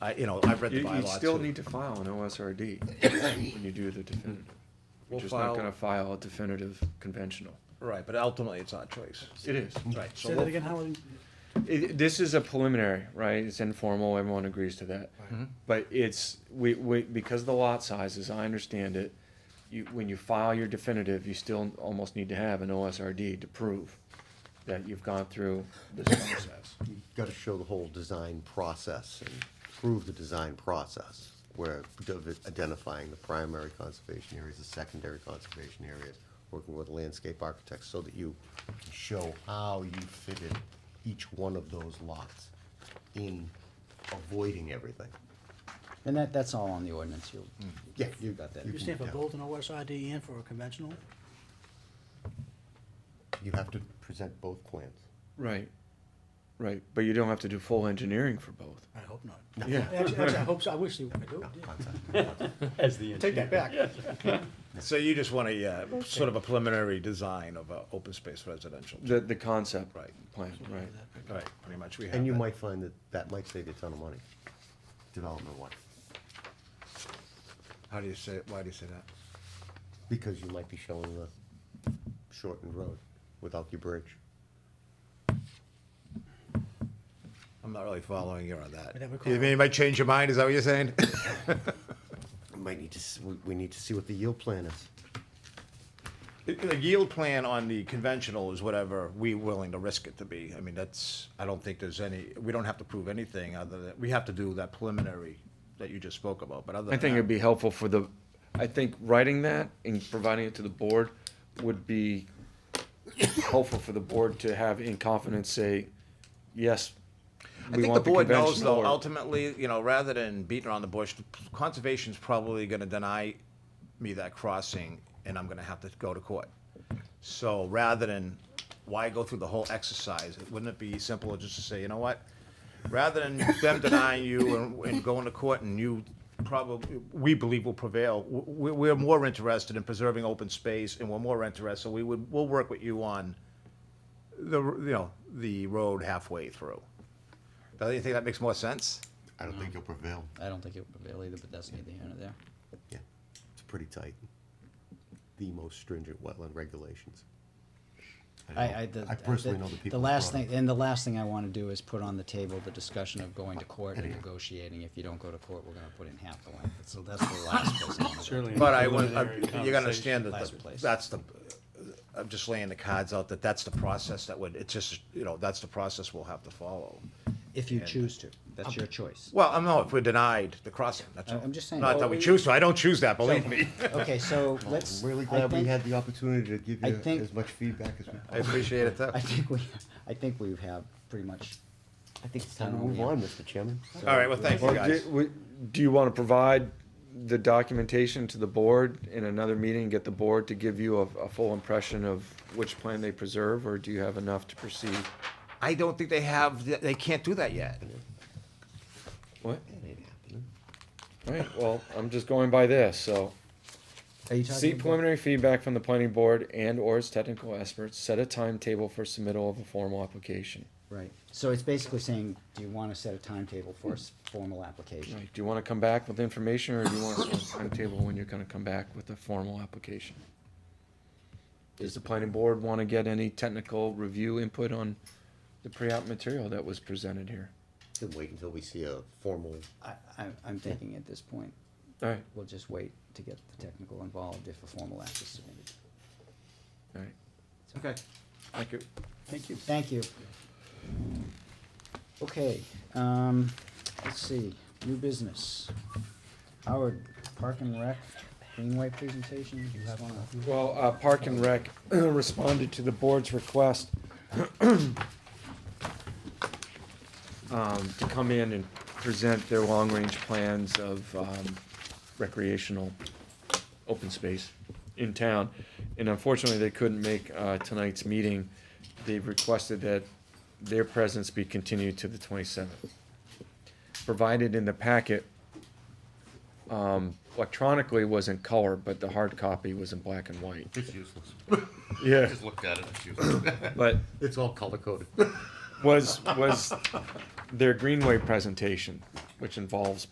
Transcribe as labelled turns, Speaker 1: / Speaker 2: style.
Speaker 1: I, you know, I've read
Speaker 2: You,
Speaker 1: the
Speaker 2: you
Speaker 1: bylaw
Speaker 2: still
Speaker 1: too.
Speaker 2: need to file an OSRD when you do the definitive. You're
Speaker 1: We'll
Speaker 2: just not
Speaker 1: file-
Speaker 2: gonna file a definitive conventional.
Speaker 1: Right, but ultimately, it's our choice.
Speaker 2: It is.
Speaker 1: Right, so
Speaker 3: Say that
Speaker 1: we'll-
Speaker 3: again, Howard?
Speaker 2: It, this is a preliminary, right? It's informal, everyone agrees to that. But it's, we, we, because of the lot sizes, I understand it, you, when you file your definitive, you still almost need to have an OSRD to prove that you've gone through this process.
Speaker 4: you gotta show the whole design process and prove the design process. Where div- identifying the primary conservation areas, the secondary conservation areas, working with landscape architects so that you can show how you fitted each one of those lots in avoiding everything.
Speaker 5: And that, that's all on the ordinance, you.
Speaker 4: Yeah, you
Speaker 5: Got that.
Speaker 4: you
Speaker 3: You stand for
Speaker 4: can- yeah.
Speaker 3: both an OSRD and E for a conventional?
Speaker 4: You have to present both plans.
Speaker 2: Right, right, but you don't have to do full engineering for both.
Speaker 3: I hope not.
Speaker 2: Yeah.
Speaker 3: Actually, actually, I hope so, I wish they would do
Speaker 4: No,
Speaker 3: it.
Speaker 4: concept.
Speaker 6: As the
Speaker 3: Take that back.
Speaker 1: So you just want a, uh, sort of a preliminary design of a open space residential.
Speaker 2: The, the concept.
Speaker 1: Right.
Speaker 2: Plan, right.
Speaker 1: Right, pretty much, we have
Speaker 4: And you
Speaker 1: that.
Speaker 4: might find that that might save you a ton of money, development one,
Speaker 1: How do you say, why do you say that?
Speaker 4: because you might be showing the shortened road without your bridge.
Speaker 1: I'm not really following you on that.
Speaker 3: Whatever
Speaker 1: You mean you might change your mind, is that what you're saying?
Speaker 4: We Might need to, s- we, we need to see what the yield plan is.
Speaker 1: The yield plan on the conventional is whatever we willing to risk it to be. I mean, that's, I don't think there's any, we don't have to prove anything other than, we have to do that preliminary that you just spoke about, but other
Speaker 2: I
Speaker 1: than
Speaker 2: think it'd
Speaker 1: that,
Speaker 2: be helpful for the, I think writing that and providing it to the board would be helpful for the board to have in confidence say, yes,
Speaker 1: I think
Speaker 2: we
Speaker 1: the
Speaker 2: want the
Speaker 1: board knows
Speaker 2: conventional.
Speaker 1: though,
Speaker 2: or-
Speaker 1: ultimately, you know, rather than beating around the bush, conservation's probably gonna deny me that crossing and I'm gonna have to go to court. So rather than, why go through the whole exercise? Wouldn't it be simpler just to say, you know what? Rather than them denying you and, and going to court and you probably, we believe will prevail, we, we're more interested in preserving open space and we're more interested, we would, we'll work with you on the, you know, the road halfway through. Don't you think that makes more sense?
Speaker 4: I don't think you'll prevail.
Speaker 5: I don't think it would prevail either, but that's neither here nor there.
Speaker 4: Yeah, it's pretty tight. The most stringent wetland regulations. know-
Speaker 5: I, I, the.
Speaker 4: I personally
Speaker 5: the-
Speaker 4: know the people.
Speaker 5: The
Speaker 4: who
Speaker 5: last
Speaker 4: brought
Speaker 5: thing,
Speaker 4: it.
Speaker 5: and the last thing I wanna do is put on the table the discussion of going
Speaker 4: Oh,
Speaker 5: to court and negotiating. If you don't go to court, we're gonna put in half the length, so that's the last place I wanna go.
Speaker 6: Certainly.
Speaker 1: But I, want- I-
Speaker 6: Preliminary
Speaker 1: you gotta understand that
Speaker 5: Last
Speaker 1: the-
Speaker 5: place.
Speaker 1: that's the, I'm just laying the cards out that that's the process that would, it's just, you know, that's the process we'll have to follow.
Speaker 5: If you choose to, that's your choice.
Speaker 1: Well, I'm not, if we're denied the crossing, that's all.
Speaker 5: I- I'm just saying-
Speaker 1: Not that we choose to, I don't choose that, believe me.
Speaker 5: Okay, so let's.
Speaker 4: I'm really
Speaker 5: I
Speaker 4: glad we
Speaker 5: think-
Speaker 4: had the opportunity to give
Speaker 5: I
Speaker 4: you
Speaker 5: think-
Speaker 4: as much feedback as we.
Speaker 1: I appreciate it, though.
Speaker 5: I think we, I think we have pretty much,
Speaker 4: I think it's
Speaker 5: time to move on,
Speaker 4: Mr. Chairman.
Speaker 1: All right, well, thank you,
Speaker 2: Well,
Speaker 1: guys.
Speaker 2: do- we- Do you wanna provide the documentation to the board in another meeting, get the board to give you a, a full impression of which plan they preserve, or do you have enough to proceed?
Speaker 1: I don't think they have, they can't do that yet.
Speaker 2: What? Alright, well, I'm just going by this, so.
Speaker 5: are you talking
Speaker 2: Seek
Speaker 5: about?
Speaker 2: preliminary feedback from the planning board and or its technical experts, set a timetable for submittal of a formal application.
Speaker 5: Right, so it's basically saying, do you wanna set a timetable for a s- formal application?
Speaker 2: Right, do you wanna come back with information, or do you want a certain timetable when you're gonna come back with a formal application? Does the planning board wanna get any technical review input on the pre-app material that was presented here?
Speaker 4: Then wait until we see a formal,
Speaker 5: I, I, I'm thinking at this point,
Speaker 2: Alright,
Speaker 5: we'll just wait to get the technical involved if a formal act is submitted.
Speaker 2: alright.
Speaker 1: Okay, thank you.
Speaker 5: Thank you. Thank you. Okay, um, let's see, new business. Howard, Park and Rec, Greenway presentation, you have one?
Speaker 2: Well, uh, Park and Rec responded to the board's request um, to come in and present their long-range plans of um, recreational open space in town. And unfortunately, they couldn't make uh, tonight's meeting. They've requested that their presence be continued to the twenty-seventh. Provided in the packet um, electronically was in color, but the hard copy was in black and white.
Speaker 7: It's useless. I
Speaker 2: Yeah,
Speaker 7: just looked at it, it's useless.
Speaker 2: but
Speaker 4: it's all color coded.
Speaker 2: was was their Greenway presentation. which involves